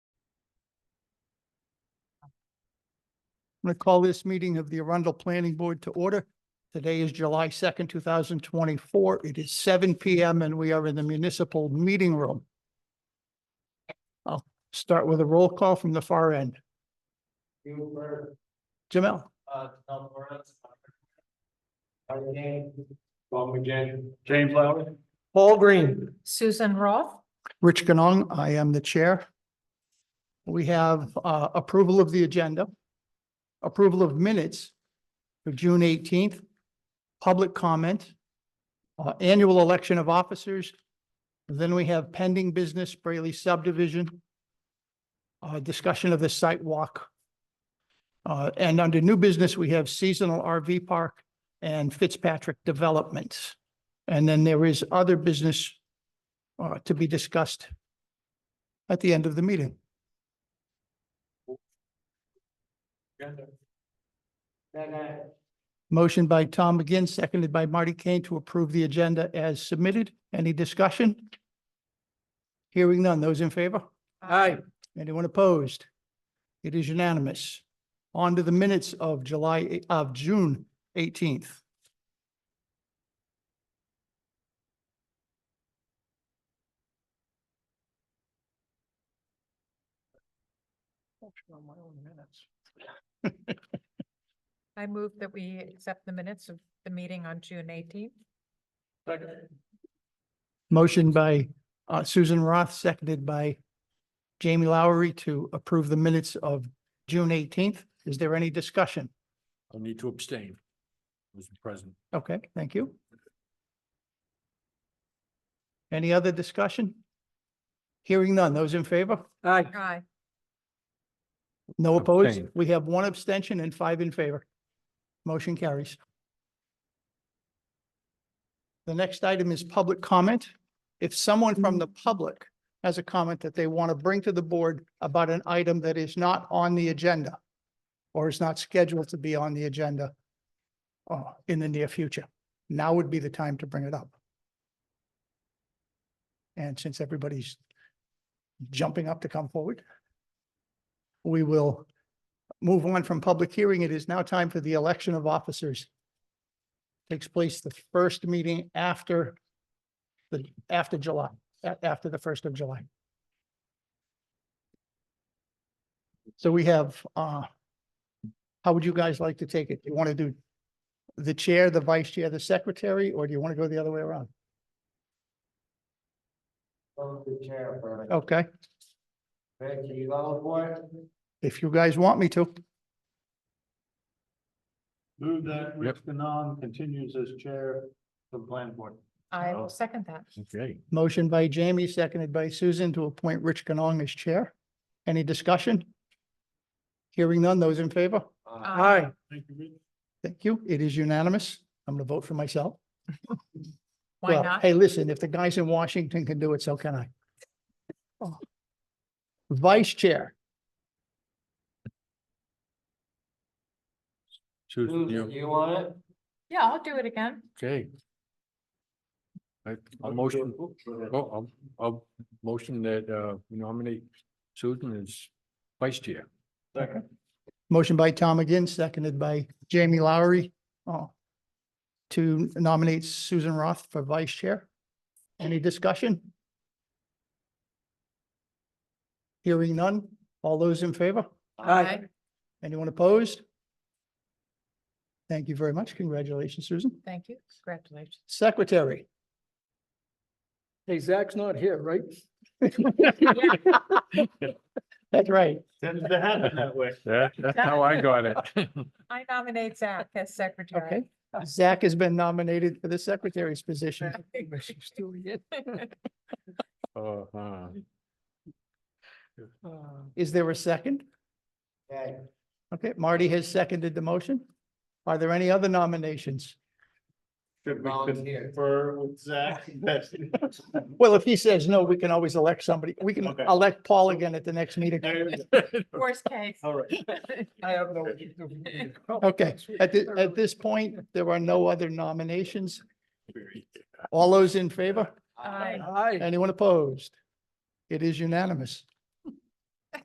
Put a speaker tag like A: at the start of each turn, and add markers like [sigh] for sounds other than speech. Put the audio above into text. A: I'm going to call this meeting of the Arundel Planning Board to order. Today is July second, two thousand twenty-four. It is seven P M and we are in the municipal meeting room. I'll start with a roll call from the far end.
B: Huber,
A: Jamel,
B: uh, Tom Morris. Howard Dean. Bob McGinn. James Lowry. Paul Green.
C: Susan Roth,
A: Rich Ganong, I am the chair. We have uh, approval of the agenda, approval of minutes for June eighteenth, public comment, uh, annual election of officers. Then we have pending business Brayley subdivision, uh, discussion of the site walk. Uh, And under new business, we have seasonal RV park and Fitzpatrick Developments. And then there is other business uh, to be discussed at the end of the meeting. Motion by Tom McGinn, seconded by Marty Kane to approve the agenda as submitted. Any discussion? Hearing none. Those in favor?
B: Hi.
A: Anyone opposed? It is unanimous. On to the minutes of July, of June eighteenth.
C: I move that we accept the minutes of the meeting on June eighteenth.
A: Motion by uh, Susan Roth, seconded by Jamie Lowery to approve the minutes of June eighteenth. Is there any discussion?
D: I'll need to abstain. Was present.
A: Okay, thank you. Any other discussion? Hearing none. Those in favor?
B: Hi.
C: Aye.
A: No opposed?
D: Abstain.
A: We have one abstention and five in favor. Motion carries. The next item is public comment. If someone from the public has a comment that they want to bring to the board about an item that is not on the agenda or is not scheduled to be on the agenda uh, in the near future, now would be the time to bring it up. And since everybody's jumping up to come forward, we will move on from public hearing. It is now time for the election of officers. Takes place the first meeting after the, after July, a- after the first of July. So we have, uh, how would you guys like to take it? Do you want to do the chair, the vice chair, the secretary, or do you want to go the other way around?
B: chair for it.
A: Okay,
B: Becky, you all for it?
A: if you guys want me to,
B: Move that Rich Ganong continues as chair of the planning board.
C: I
D: Oh.
C: will second that.
D: Okay.
A: motion by Jamie, seconded by Susan to appoint Rich Ganong as chair. Any discussion? Hearing none, those in favor?
B: Uh,
C: Aye.
B: Thank you, Rich.
A: Thank you. It is unanimous. I'm going to vote for myself.
C: Why
A: Well,
C: not?
A: Hey, listen, if the guys in Washington can do it, so can I. Oh. Vice Chair,
D: Susan,
B: Susan,
D: you,
B: you want it?
C: Yeah, I'll do it again.
D: okay. I, I'll motion, oh, I'll, I'll motion that, uh, we nominate Susan as vice chair.
B: Second.
A: motion by Tom again, seconded by Jamie Lowery. oh, To nominate Susan Roth for Vice Chair. Any discussion? Hearing none. All those in favor?
C: Aye.
A: Anyone opposed? Thank you very much. Congratulations, Susan.
C: Thank you. Congratulations.
A: Secretary.
D: Hey, Zach's not here, right?
A: That's
C: [laughs]
A: right.
B: Tends to happen that way.
D: Yeah, that's how I got it.
C: I nominate Zach as
A: Okay.
C: secretary.
A: Zach has been nominated for the secretary's position.
D: [laughs] Uh-huh.
A: Is there a second?
B: Okay.
A: Okay, Marty has seconded the motion. Are there any other nominations?
B: Should we
E: Volunteer.
B: confer with Zach? [laughs] That's-
A: Well, if he says no, we can always elect somebody. We can
B: Okay.
A: elect Paul again at the next meeting.
B: There you go.
C: Worst case.
B: All right.
E: I have no. idea.
A: Okay, at thi- at this point, there are no other nominations. All those in favor?
C: Aye.
E: Aye.
A: Anyone opposed? It is unanimous.